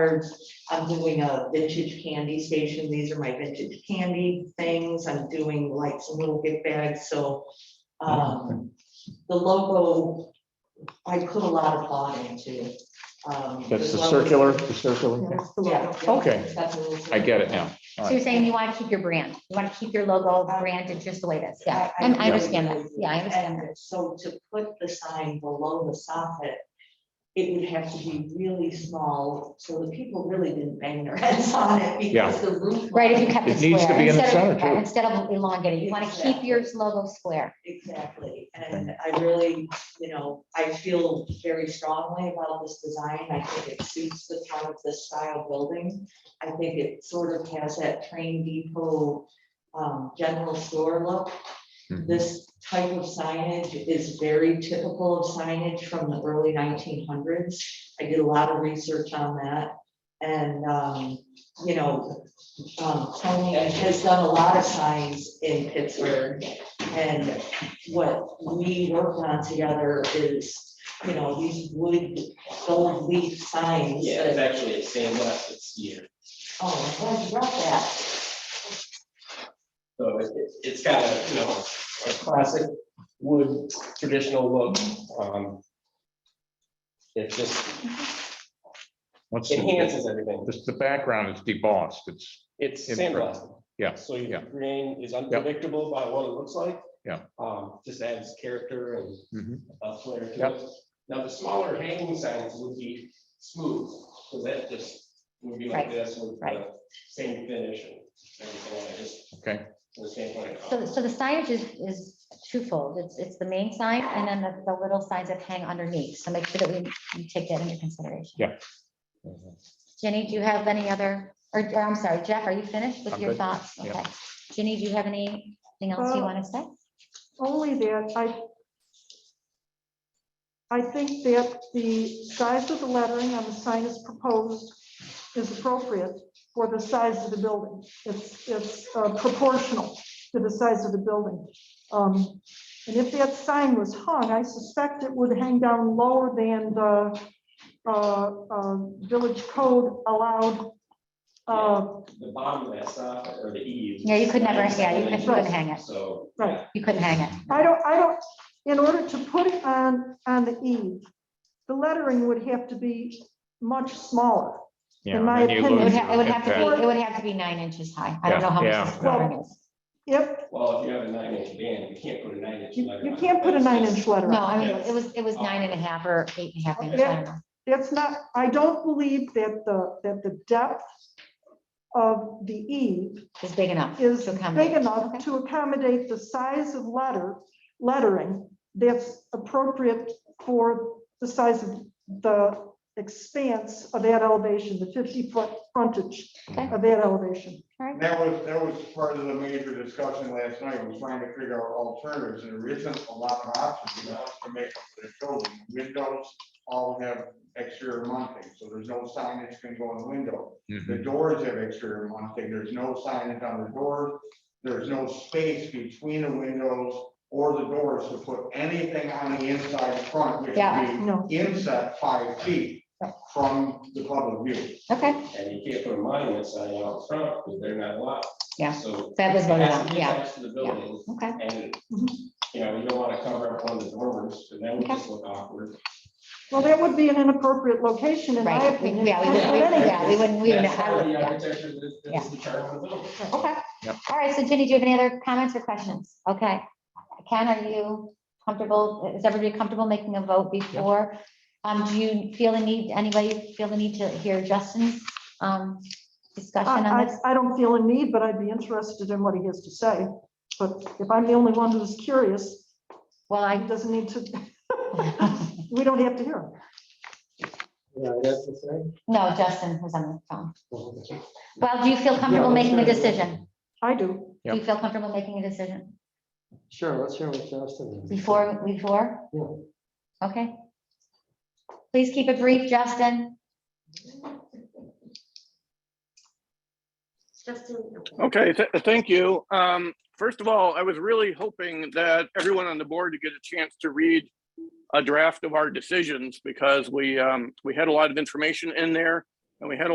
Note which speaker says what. Speaker 1: cards. I'm doing a vintage candy station. These are my vintage candy things. I'm doing like some little gift bags, so. Um, the logo, I put a lot of thought into. um,
Speaker 2: That's
Speaker 1: as
Speaker 2: the
Speaker 1: well as-
Speaker 2: circular, the circular.
Speaker 3: That's the
Speaker 1: Yeah.
Speaker 3: logo.
Speaker 1: yeah,
Speaker 2: Okay.
Speaker 1: that's a little-
Speaker 2: I get it now.
Speaker 4: So you're saying you want to keep your brand, you want to keep your logo branded just the way it is, yeah,
Speaker 1: I- I
Speaker 4: and I
Speaker 1: really
Speaker 4: understand that,
Speaker 1: do.
Speaker 4: yeah, I understand that.
Speaker 1: And so to put the sign below the soffit, it would have to be really small, so the people really didn't bang their heads on it
Speaker 2: Yeah.
Speaker 1: because the roof.
Speaker 4: Right, if you kept it
Speaker 2: It needs to
Speaker 4: square,
Speaker 2: be in the
Speaker 4: instead of,
Speaker 2: center,
Speaker 4: yeah,
Speaker 2: too.
Speaker 4: instead of elongated, you want to keep
Speaker 1: Exactly.
Speaker 4: your logo square.
Speaker 1: Exactly, and I really, you know, I feel very strongly about this design, I think it suits the town of this style building. I think it sort of has that train depot, um, general store look.
Speaker 2: Mhm.
Speaker 1: This type of signage is very typical of signage from the early nineteen hundreds. I did a lot of research on that. And, um, you know, um, Tony has done a lot of signs in Pittsburgh. And what we worked on together is, you know, these wood, gold leaf signs.
Speaker 5: Yeah,
Speaker 1: that-
Speaker 5: it's actually a same last this year,
Speaker 1: Oh, I'm glad you brought that.
Speaker 5: so it, it- it's got a, you know, a classic wood traditional look. Um It just
Speaker 2: What's the-
Speaker 5: enhances everything,
Speaker 2: This, the background is debossed, it's,
Speaker 5: it's
Speaker 2: Impressive.
Speaker 5: sandblasted.
Speaker 2: Yeah,
Speaker 5: So your
Speaker 2: yeah.
Speaker 5: grain is unpredictable by what it looks like.
Speaker 2: Yeah.
Speaker 5: Um, just adds character and
Speaker 2: Mhm.
Speaker 5: a flair to
Speaker 2: Yep.
Speaker 5: it. Now, the smaller hanging signs would be smooth, so that just would be like
Speaker 4: Right,
Speaker 5: this with
Speaker 4: right.
Speaker 5: the same finish and everything, like just
Speaker 2: okay,
Speaker 5: from the standpoint of.
Speaker 4: So, so the signage is, is twofold, it's, it's the main sign and then the, the little signs that hang underneath, so make sure that we, we take that into consideration.
Speaker 2: Yeah.
Speaker 4: Jenny, do you have any other, or, or I'm sorry, Jeff, are you finished with
Speaker 2: I'm
Speaker 4: your
Speaker 2: good.
Speaker 4: thoughts?
Speaker 2: Yeah.
Speaker 4: Okay. Jenny, do you have anything else you
Speaker 3: Uh,
Speaker 4: want to say?
Speaker 3: Only that I, I think that the size of the lettering on the sign as proposed is appropriate for the size of the building. It's, it's uh, proportional to the size of the building. Um, And if that sign was hung, I suspect it would hang down lower than the uh, uh, village code allowed. uh,
Speaker 5: The bottom of that stop or the eaves.
Speaker 4: Yeah, you could never- yeah, you could-
Speaker 3: you couldn't
Speaker 4: hang it.
Speaker 5: So.
Speaker 3: Right.
Speaker 5: yeah,
Speaker 4: You couldn't hang it.
Speaker 3: I don't, I don't, in order to put it on, on the eve, the lettering would have to be much smaller.
Speaker 2: yeah.
Speaker 3: In my
Speaker 2: and then you
Speaker 3: opinion,
Speaker 4: It would
Speaker 2: lose
Speaker 4: ha- it
Speaker 2: your
Speaker 4: would have to
Speaker 2: impact.
Speaker 4: be, it would have to be nine inches high. I don't
Speaker 2: Yeah,
Speaker 4: know how
Speaker 2: yeah,
Speaker 4: much this
Speaker 3: yeah.
Speaker 4: flooring is.
Speaker 3: If,
Speaker 5: Well, if you have a nine inch band, you can't put a nine inch
Speaker 3: you
Speaker 5: letter.
Speaker 3: you
Speaker 5: on it.
Speaker 3: can't put a
Speaker 5: That's
Speaker 3: nine
Speaker 5: just-
Speaker 3: inch letter
Speaker 4: No,
Speaker 3: on
Speaker 4: I mean, it was, it was nine and a half or eight and a half inches. I don't know.
Speaker 3: It's not, I don't believe that the, that the depth of the eve
Speaker 4: It's big enough.
Speaker 3: is
Speaker 4: to accommodate.
Speaker 3: big
Speaker 4: Okay.
Speaker 3: enough to accommodate the size of letter, lettering that's appropriate for the size of the expanse of that elevation, the 50-foot frontage
Speaker 4: Okay.
Speaker 3: of that elevation.
Speaker 6: And That was, that was part of the major discussion last night, was trying to figure out alternatives, and there isn't a lot of options, you know, to make up for the building. Windows all have exterior mounting, so there's no signage can go in the window. The
Speaker 2: Mhm.
Speaker 6: doors have exterior mounting, there's no signage on the doors, there's no space between the windows or the doors to put anything on the inside front, which
Speaker 4: Yeah.
Speaker 6: would
Speaker 3: No,
Speaker 6: be inside five feet from the public view.
Speaker 4: Okay,
Speaker 5: And you can't put a monument sign out front, because they're not allowed.
Speaker 4: Yeah,
Speaker 5: So.
Speaker 4: that was
Speaker 5: it
Speaker 4: voted
Speaker 5: has to
Speaker 4: on,
Speaker 5: be
Speaker 4: yeah,
Speaker 5: attached To the building,
Speaker 4: okay.
Speaker 5: and,
Speaker 3: Mhm.
Speaker 5: you know, you don't wanna cover up one of the dormers, because that would
Speaker 4: Okay.
Speaker 5: just look awkward.
Speaker 3: well, that would be an inappropriate location in my
Speaker 4: Right. We-
Speaker 3: opinion.
Speaker 4: Yeah, we wouldn't, we- yeah, we wouldn't, we wouldn't.
Speaker 5: That's
Speaker 4: I
Speaker 5: part of
Speaker 4: wouldn't,
Speaker 5: the
Speaker 4: yeah.
Speaker 5: architecture that- that's the charm of the building.
Speaker 4: Okay.
Speaker 2: Yep.
Speaker 4: All right. So Jenny, do you have any other comments or questions? Okay. Ken, are you comfortable? Is everybody comfortable making a vote before? Um, do you feel the need, anybody feel the need to hear Justin's, um, discussion on
Speaker 3: Uh, I,
Speaker 4: this?
Speaker 3: I, I don't feel a need, but I'd be interested in what he has to say. But if I'm the only one who's curious,
Speaker 4: Well,
Speaker 3: he
Speaker 4: I,
Speaker 3: doesn't need to, we don't have to hear him.
Speaker 4: no, Justin was on the phone. Well, do you feel comfortable making a decision?
Speaker 3: I do.
Speaker 4: Do you feel comfortable making a decision
Speaker 7: Sure, let's hear what Justin. has to say.
Speaker 4: before, before? Okay. Please keep it brief, Justin.
Speaker 8: Okay, th- thank you. Um, first of all, I was really hoping that everyone on the board would get a chance to read a draft of our decisions because we, um, we had a lot of information in there. and we had a